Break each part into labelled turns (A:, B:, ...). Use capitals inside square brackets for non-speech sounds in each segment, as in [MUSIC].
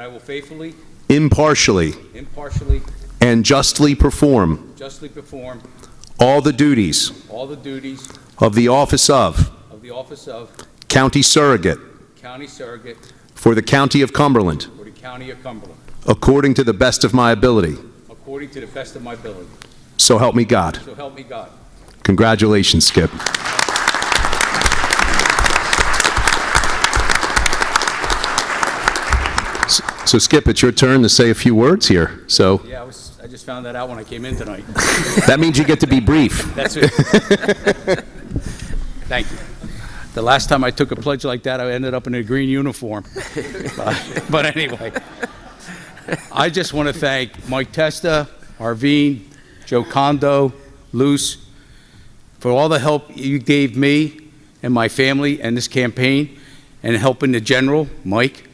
A: I will faithfully,
B: impartially,
A: impartially,
B: and justly perform
A: justly perform
B: all the duties
A: all the duties
B: of the office of
A: of the office of
B: County Surrogate
A: County Surrogate
B: for the County of Cumberland,
A: for the County of Cumberland,
B: according to the best of my ability.
A: according to the best of my ability.
B: So help me God.
A: So help me God.
B: Congratulations, Skip. S- So Skip, it's your turn to say a few words here. So
A: Yeah, I was, I just found that out when I came in tonight.
B: that means you get to be brief.
A: That's it. [LAUGHS] Thank you. The last time I took a pledge like that, I ended up in a green uniform. But- But anyway, I just want to thank Mike Testa, Arvine, Joe Condo, Luce, for all the help you gave me and my family and this campaign, and helping the general, Mike,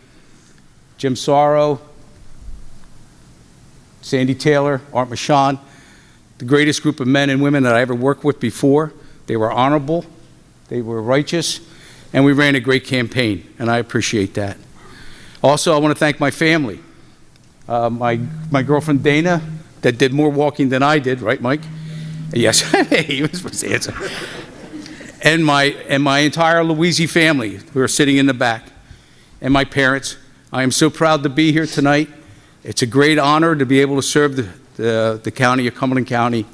A: Jim Sorrow, Sandy Taylor, Art Mashan, the greatest group of men and women that I ever worked with before. They were honorable, they were righteous, and we ran a great campaign, and I appreciate that. Also, I want to thank my family. Uh, my, my girlfriend Dana, that did more walking than I did, right, Mike? Yes, [LAUGHS] he was supposed to answer. And my, and my entire Louisi family, who are sitting in the back, and my parents. I am so proud to be here tonight. It's a great honor to be able to serve the, the, the county of Cumberland County.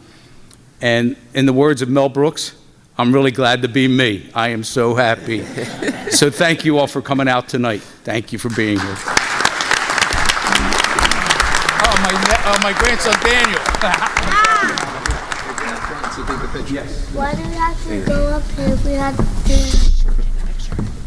A: And in the words of Mel Brooks, I'm really glad to be me. I am so [LAUGHS] happy. so thank you all for coming out tonight. Thank you for being here. Oh, my, ne- oh, my grandson Daniel.
C: Why do we have to go up here? We have to.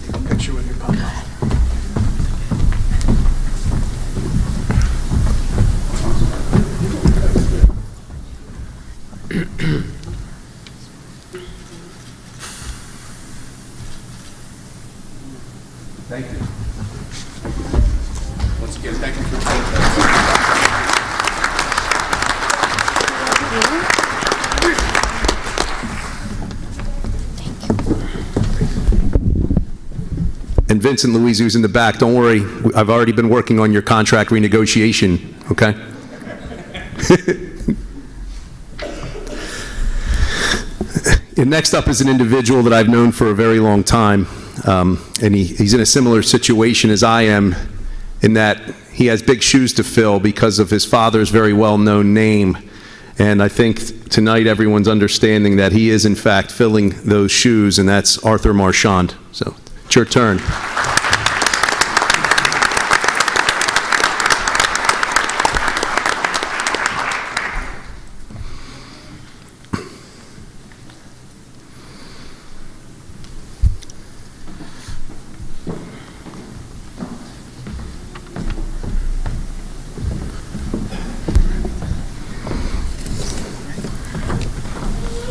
A: Thank you. Once again, thank you for
B: And Vincent Louise, who's in the back, don't worry, I've already been working on your contract renegotiation, okay? [LAUGHS] And next up is an individual that I've known for a very long time, um, and he, he's in a similar situation as I am, in that he has big shoes to fill because of his father's very well-known name. And I think tonight everyone's understanding that he is in fact filling those shoes, and that's Arthur Marchand. So it's your turn.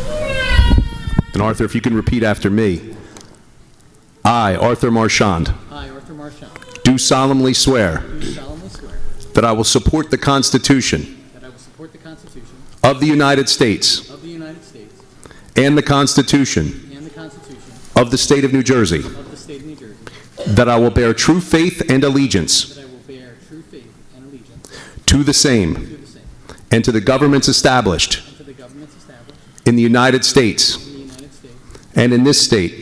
B: And Arthur, if you can repeat after me. I, Arthur Marchand,
D: I, Arthur Marchand,
B: do solemnly swear
D: do solemnly swear
B: that I will support the Constitution
D: that I will support the Constitution
B: of the United States
D: of the United States
B: and the Constitution
D: and the Constitution
B: of the State of New Jersey,
D: of the State of New Jersey,
B: that I will bear true faith and allegiance
D: that I will bear true faith and allegiance
B: to the same
D: to the same
B: and to the governments established
D: and to the governments established
B: in the United States
D: in the United States
B: and in this state
D: and in this state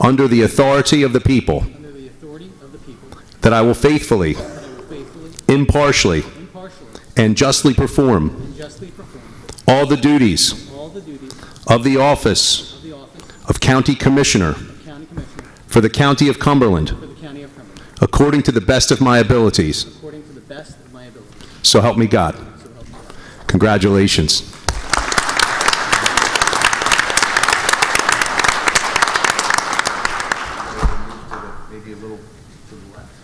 B: under the authority of the people,
D: under the authority of the people,
B: that I will faithfully,
D: that I will faithfully,
B: impartially,
D: impartially,
B: and justly perform
D: and justly perform
B: all the duties
D: all the duties
B: of the office
D: of the office
B: of County Commissioner
D: of County Commissioner
B: for the County of Cumberland
D: for the County of Cumberland,
B: according to the best of my abilities.
D: according to the best of my ability,
B: So help me God.
D: so help me God.
B: Congratulations.
E: maybe a little to the left.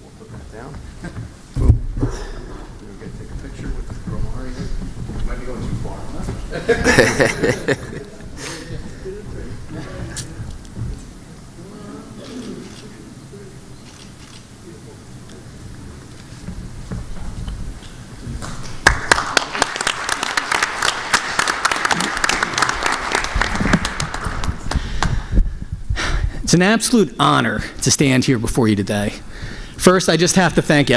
E: We'll put that down. Boom. We're gonna take a picture with the girl Mario. Might be going too far, huh?
D: It's an absolute honor to stand here before you today. First, I just have to thank